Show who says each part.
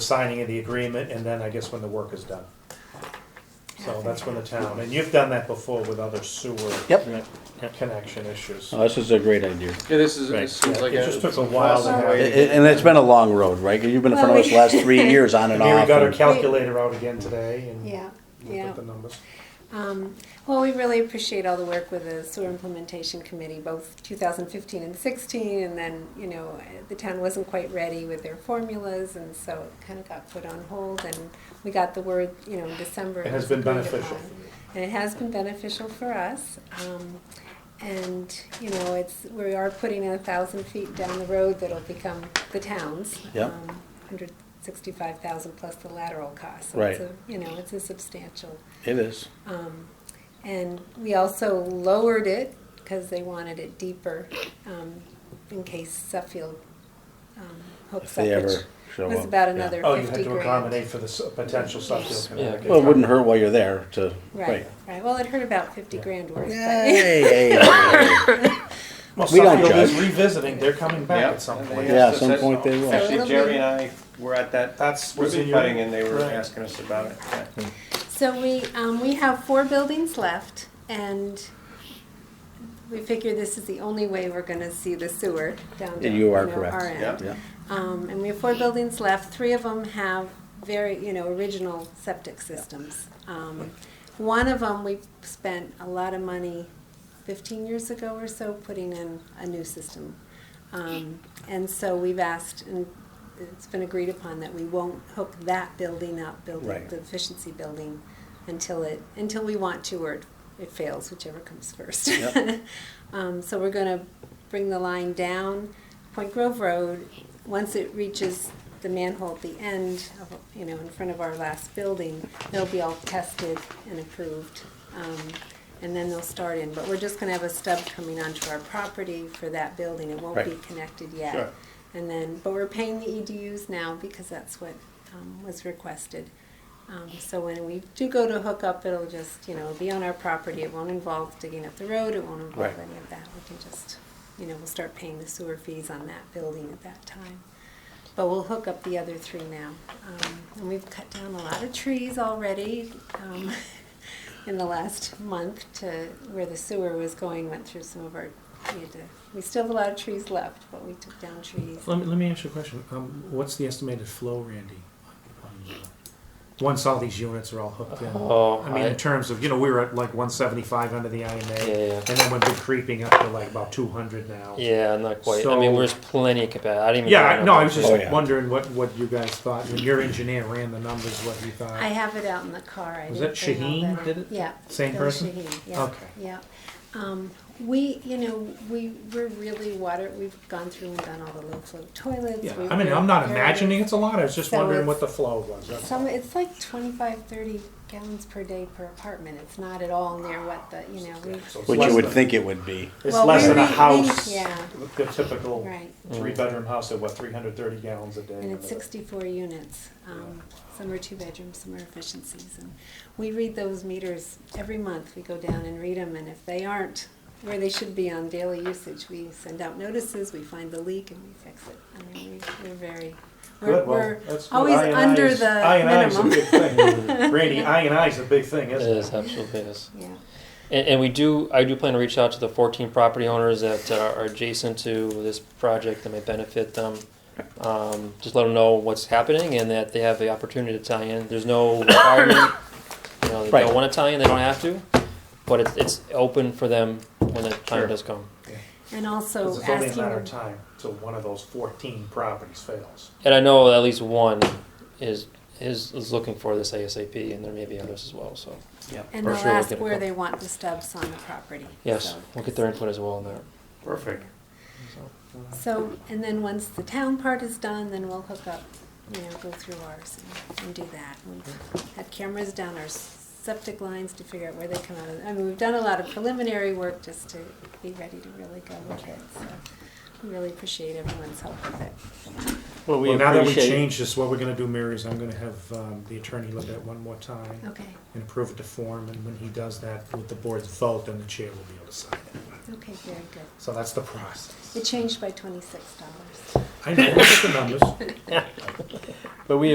Speaker 1: signing of the agreement, and then I guess when the work is done. So that's when the town, and you've done that before with other sewer
Speaker 2: Yep.
Speaker 1: connection issues.
Speaker 2: Oh, this is a great idea.
Speaker 3: Yeah, this is,
Speaker 2: Right.
Speaker 3: this seems
Speaker 1: Yeah,
Speaker 3: like
Speaker 1: it
Speaker 3: a.
Speaker 1: just took a while to
Speaker 3: awesome
Speaker 1: have
Speaker 3: way
Speaker 2: A-
Speaker 3: to
Speaker 2: a- And it's been a long road, right? 'Cause You've been in front of us the last three years on and
Speaker 1: Mary
Speaker 2: off.
Speaker 1: got her
Speaker 2: and-
Speaker 1: calculator out again today and
Speaker 4: Yeah,
Speaker 1: looked
Speaker 4: yeah.
Speaker 1: at the numbers.
Speaker 4: Um, Well, we really appreciate all the work with the sewer implementation committee, both 2015 and 16, and then, you know, the town wasn't quite ready with their formulas, and so it kind of got put on hold, and we got the word, you know, in December.
Speaker 1: It has been
Speaker 4: was agreed
Speaker 1: beneficial
Speaker 4: upon.
Speaker 1: for me.
Speaker 4: And it has been beneficial for us. Um, And, you know, it's, we are putting a thousand feet down the road that'll become the town's. Um,
Speaker 2: Yep.
Speaker 4: Hundred sixty-five thousand plus the lateral cost. So
Speaker 2: Right.
Speaker 4: it's a- You know, it's a substantial
Speaker 2: It is.
Speaker 4: um, And we also lowered it because they wanted it deeper um, in case Suffield, um, Hope
Speaker 2: If they
Speaker 4: Suffrage
Speaker 2: ever show
Speaker 4: was
Speaker 2: up,
Speaker 4: about
Speaker 2: yeah.
Speaker 4: another
Speaker 1: Oh, you had
Speaker 4: fifty
Speaker 1: to
Speaker 4: grand.
Speaker 1: accommodate for the s- potential Suffield
Speaker 3: Yeah.
Speaker 1: Connecticut.
Speaker 2: Well, it wouldn't hurt while you're there to,
Speaker 4: Right,
Speaker 2: right.
Speaker 4: right. Well, it hurt about fifty grand worth. but-
Speaker 2: Yay, yay, yay.
Speaker 1: Well,
Speaker 2: We don't
Speaker 1: Suffield is
Speaker 2: judge.
Speaker 1: revisiting, they're coming back
Speaker 5: Yeah.
Speaker 1: at some
Speaker 5: And they
Speaker 1: point.
Speaker 2: Yeah,
Speaker 5: asked
Speaker 2: some
Speaker 5: us-
Speaker 2: point they will.
Speaker 4: So it'll
Speaker 5: Actually, Jerry
Speaker 4: be-
Speaker 5: and I were at that
Speaker 1: That's what's in
Speaker 5: ribbon
Speaker 1: your.
Speaker 5: cutting and they were
Speaker 1: Right.
Speaker 5: asking us about it. yeah.
Speaker 4: So we, um, we have four buildings left and we figure this is the only way we're gonna see the sewer down to,
Speaker 2: You are
Speaker 4: know,
Speaker 2: correct.
Speaker 4: our end.
Speaker 5: Yeah.
Speaker 2: Yeah.
Speaker 4: Um, and we have four buildings left. Three of them have very, you know, original septic systems. Um, one of them, we spent a lot of money fifteen years ago or so putting in a new system. Um, and so we've asked, and it's been agreed upon that we won't hook that building up, building,
Speaker 2: Right.
Speaker 4: the efficiency building, until it, until we want to or it fails, whichever comes first.
Speaker 2: Yep.
Speaker 4: Um, so we're gonna bring the line down Point Grove Road. Once it reaches the manhole at the end, of, you know, in front of our last building, they'll be all tested and approved. Um, and then they'll start in, but we're just gonna have a stub coming onto our property for that building. It won't be
Speaker 2: Right.
Speaker 4: connected yet.
Speaker 5: Sure.
Speaker 4: And then, but we're paying the EDUs now because that's what, um, was requested. Um, so when we do go to hook up, it'll just, you know, it'll be on our property. It won't involve digging up the road. It won't involve
Speaker 2: Right.
Speaker 4: any of that. We can just, you know, we'll start paying the sewer fees on that building at that time. But we'll hook up the other three now. Um, and we've cut down a lot of trees already, um, in the last month to where the sewer was going, went through some of our, we had to, we still have a lot of trees left, but we took down trees.
Speaker 6: Let me, let me ask you a question. Um, what's the estimated flow, Randy? on- on, uh, Once all these units are all hooked in,
Speaker 3: Oh,
Speaker 6: I mean, in terms of, you know, we were at like one seventy-five under the IMA,
Speaker 3: yeah,
Speaker 6: and then we've been creeping up to like about two hundred now.
Speaker 3: yeah, not
Speaker 6: quite. I
Speaker 3: quite.
Speaker 6: So-
Speaker 3: I
Speaker 6: mean,
Speaker 3: mean,
Speaker 6: there's
Speaker 3: there's plenty of capacity. I didn't even.
Speaker 6: Yeah, I- no, I was just
Speaker 2: Oh, yeah.
Speaker 6: wondering what, what you guys thought, when your engineer ran the numbers, what he
Speaker 4: I
Speaker 6: thought.
Speaker 4: have it out in the car. I
Speaker 6: Was
Speaker 4: didn't
Speaker 6: that
Speaker 4: bring all
Speaker 6: Shaheen
Speaker 4: that.
Speaker 6: did it?
Speaker 4: Yeah.
Speaker 6: Same
Speaker 4: Bill
Speaker 6: person?
Speaker 4: Shaheen, yeah,
Speaker 6: Okay.
Speaker 4: Yeah. Um, we, you know, we, we're really water, we've gone through and done all the low flow toilets.
Speaker 6: Yeah,
Speaker 4: We-
Speaker 6: I mean,
Speaker 4: we're
Speaker 6: I'm not
Speaker 4: very-
Speaker 6: imagining it's a lot, I was just
Speaker 4: So
Speaker 6: wondering
Speaker 4: it's-
Speaker 6: what the flow was. that's all.
Speaker 4: Some, it's like 25, 30 gallons per day per apartment. It's not at all near what the, you know, we.
Speaker 1: So it's
Speaker 2: Which
Speaker 1: less
Speaker 2: you would
Speaker 1: than-
Speaker 2: think it would be.
Speaker 1: It's
Speaker 4: Well,
Speaker 1: less
Speaker 4: we
Speaker 1: than a
Speaker 4: re- we-
Speaker 1: house,
Speaker 4: yeah.
Speaker 1: the typical
Speaker 4: Right.
Speaker 1: three-bedroom house at what, three hundred thirty gallons a day?
Speaker 4: And it's
Speaker 1: or whatever.
Speaker 4: sixty-four units. Um, Some are two bedrooms, some are efficiencies. And we read those meters every month. We go down and read them, and if they aren't where they should be on daily usage, we send out notices, we find the leak, and we fix it. I mean, we- we're very, we're,
Speaker 1: Good, well,
Speaker 4: we're
Speaker 1: that's good.
Speaker 4: always
Speaker 1: I and
Speaker 4: under
Speaker 1: I's-
Speaker 4: the
Speaker 1: I and I's a
Speaker 4: minimum.
Speaker 1: big thing. Randy, I and I is a big thing,
Speaker 3: It
Speaker 1: isn't
Speaker 3: is
Speaker 1: it?
Speaker 3: absolutely it is.
Speaker 4: Yeah,
Speaker 3: And, and we do. I do plan to reach out to the 14 property owners that uh, are, are adjacent to this project that may benefit them. Um, just let them know what's happening and that they have the opportunity to tie in. There's no requirement. you know, they
Speaker 2: Right.
Speaker 3: don't want to tie in. They don't have to. But it's it's open for them when the time
Speaker 1: Sure.
Speaker 3: does come.
Speaker 4: and
Speaker 1: 'Cause
Speaker 4: also
Speaker 1: it's only a matter of
Speaker 4: asking,
Speaker 1: time till one of those fourteen properties fails.
Speaker 3: And I know at least one is is, is looking for this ASAP, and there may be others as well. So
Speaker 4: and
Speaker 3: for
Speaker 4: they'll
Speaker 3: sure we'll
Speaker 4: ask
Speaker 3: get it
Speaker 4: where
Speaker 3: done.
Speaker 4: they want the stubs on the property.
Speaker 3: yes,
Speaker 4: So-
Speaker 3: we'll get their input as well on that.
Speaker 5: Perfect.
Speaker 4: So, and then once the town part is done, then we'll hook up, you know, go through ours and, and do that. We've had cameras down our septic lines to figure out where they come out of. I mean, we've done a lot of preliminary work just to be ready to really go with it, so we really appreciate everyone's help with it.
Speaker 2: Well,
Speaker 6: Well, now that we changed this, what we're gonna do, Mary, is I'm gonna have, um, the attorney look at it one more time.
Speaker 4: Okay,
Speaker 6: and approve it to form, and when he does that with the board's vote, then the chair will be able to sign it.
Speaker 4: okay, very good.
Speaker 6: So that's the process.
Speaker 4: It changed by twenty-six dollars.
Speaker 6: I know, look at the numbers.
Speaker 2: But we